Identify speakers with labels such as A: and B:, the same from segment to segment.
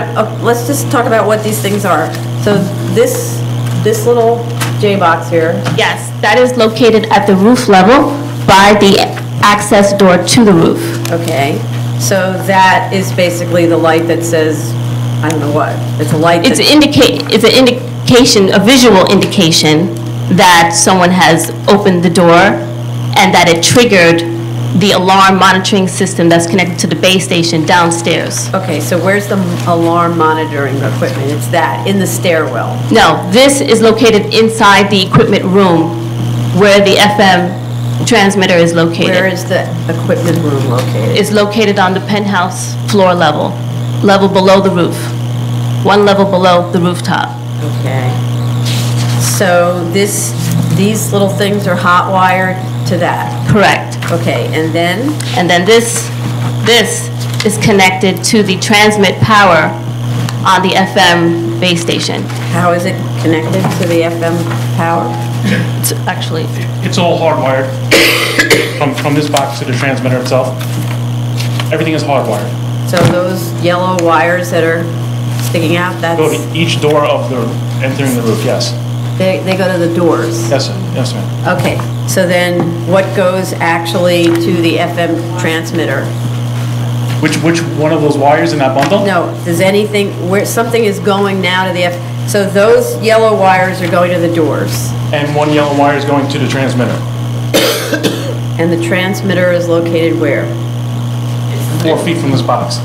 A: Uh, Let's just talk about what these things are. So this, this little J box here,
B: Yes, that is located at the roof level by the access door to the roof.
A: okay, so that is basically the light that says, I don't know what, it's a light
B: It's
A: that,
B: indicate, it's an indication, a visual indication that someone has opened the door and that it triggered the alarm monitoring system that's connected to the base station downstairs.
A: okay, so where's the alarm monitoring equipment? It's that, in the stairwell.
B: No, this is located inside the equipment room where the FM transmitter is
A: Where
B: located.
A: is the equipment room located?
B: It's located on the penthouse floor level, level below the roof, one level below the rooftop.
A: Okay. So this, these little things are hot wired to that.
B: Correct.
A: Okay, and then,
B: And then this, this is connected to the transmit power on the FM base station.
A: how is it connected to the FM power?
B: It's actually,
C: It's all hardwired from, from this box to the transmitter itself. Everything is hardwired.
A: So those yellow wires that are sticking out, that's,
C: Go to each door of the, entering the roof, yes.
A: they, they go to the doors?
C: Yes, sir, yes, sir.
A: Okay, so then what goes actually to the FM transmitter?
C: Which, which one of those wires in that bundle?
A: No, does anything, where, something is going now to the F, so those yellow wires are going to the doors,
C: And one yellow wire is going to the transmitter.
A: and the transmitter is located where?
C: Four feet from this box.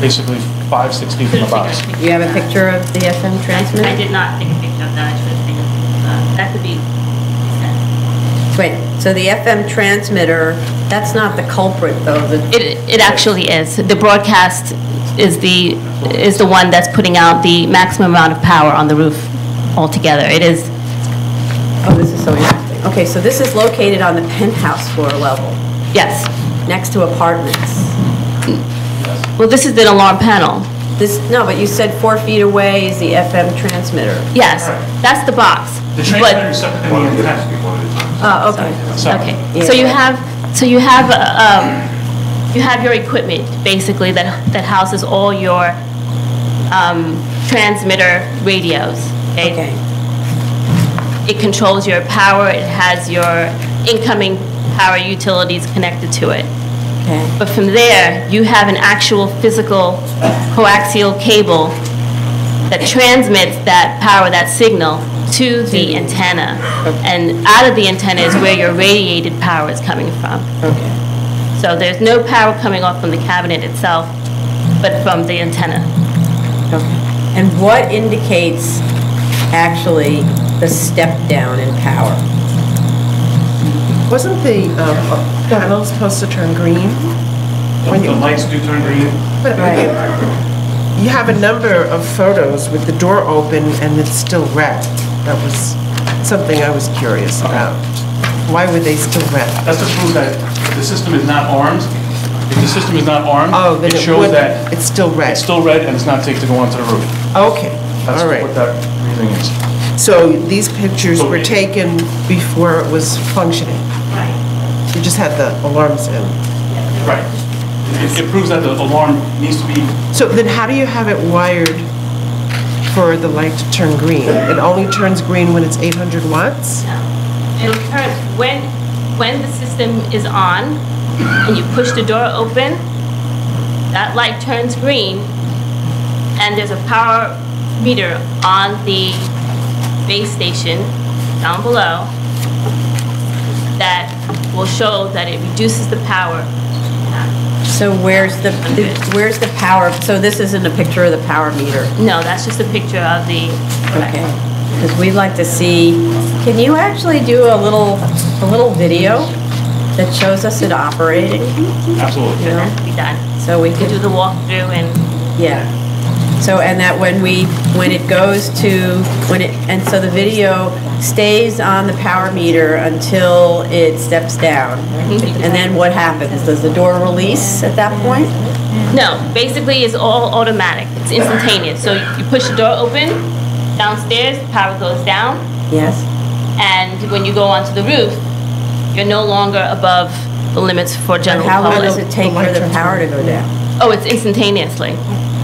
C: Basically, five, six feet from the box.
A: You have a picture of the FM transmitter?
D: I did not take a picture of that, I should have taken, uh, that could be sent.
A: Wait, so the FM transmitter, that's not the culprit though, the,
B: it, it actually is. The broadcast is the, is the one that's putting out the maximum amount of power on the roof altogether. It is,
A: oh, this is so interesting. Okay, so this is located on the penthouse floor level,
B: yes.
A: next to apartments.
B: Well, this is the alarm panel.
A: This, no, but you said four feet away is the FM transmitter.
B: Yes, that's the box.
C: The
B: But-
C: transmitter is separate than the antenna.
A: Oh, okay.
C: So-
B: Okay,
A: Yeah.
B: so you have, so you have, uh, um, you have your equipment, basically, that, that houses all your, um, transmitter radios.
A: Okay,
B: It controls your power, it has your incoming power utilities connected to it.
A: okay,
B: But from there, you have an actual physical coaxial cable that transmits that power, that signal, to the antenna. And out of the antenna is where your radiated power is coming from.
A: okay.
B: So there's no power coming off from the cabinet itself, but from the antenna.
A: And what indicates actually the step down in power?
E: Wasn't the um, panel supposed to turn green?
C: The the lights do turn green.
E: But You have a number of photos with the door open and it's still red. That was something I was curious about. Why were they still red?
C: That's to prove that the system is not armed. If the system is not armed,
E: Oh, then
C: it
E: it
C: shows
E: would,
C: that
E: it's still red.
C: it's still red and it's not safe to go onto the roof.
E: Okay,
C: That's
E: all
C: what
E: right.
C: that reasoning is.
E: So these pictures were taken before it was functioning? You just had the alarms in.
C: Right. It it proves that the alarm needs to be,
E: So then how do you have it wired for the light to turn green? It only turns green when it's 800 watts?
B: It'll turn, when, when the system is on and you push the door open, that light turns green and there's a power meter on the base station down below that will show that it reduces the power.
A: So where's the, where's the power, so this isn't a picture of the power meter?
B: No, that's just a picture of the.
A: Okay, because we'd like to see, can you actually do a little, a little video that shows us it operating?
C: absolutely.
B: It has to be done.
A: So we
B: You can
A: could,
B: do the walkthrough and,
A: yeah. So, and that when we, when it goes to, when it, and so the video stays on the power meter until it steps down. And then what happens? Does the door release at that point?
B: no, basically it's all automatic. It's instantaneous. So you push the door open, downstairs, power goes down.
A: Yes.
B: And when you go onto the roof, you're no longer above the limits for
A: And
B: general
A: how long does
B: public.
A: it take for the power to go down?
B: Oh, it's instantaneously.